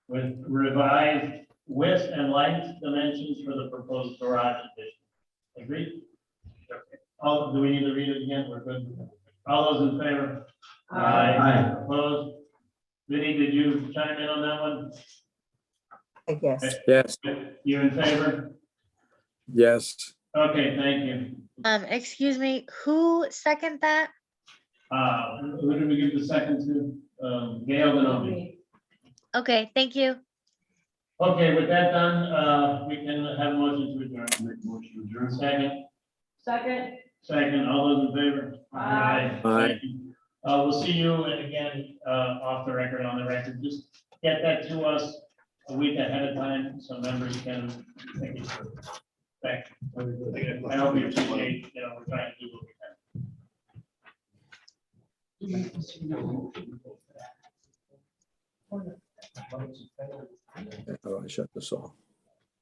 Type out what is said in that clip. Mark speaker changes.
Speaker 1: with revised width and length dimensions for the proposed garage addition. Agreed? Okay. All, do we need to read it again? We're good. All those in favor? Opposed? Vinnie, did you chime in on
Speaker 2: I guess.
Speaker 3: Yes,
Speaker 1: that one? You in favor?
Speaker 3: yes,
Speaker 1: Okay, thank you.
Speaker 4: Um, excuse me, who second that?
Speaker 1: Uh, who did we give the second to? Um, Gail Denomey.
Speaker 4: Okay, thank you.
Speaker 1: Okay, with that done, uh, we can have a motion to adjourn. Make motion to adjourn. Second,
Speaker 5: Second,
Speaker 1: second, all those in favor?
Speaker 5: Aye.
Speaker 1: Thank you. Uh, we'll see you, and again, uh, off the record, on the record, just get that to us a week ahead of time, so members can think it through. Thank you. I hope you appreciate, you know, we're trying to do what we can.
Speaker 3: Oh, I shut this off.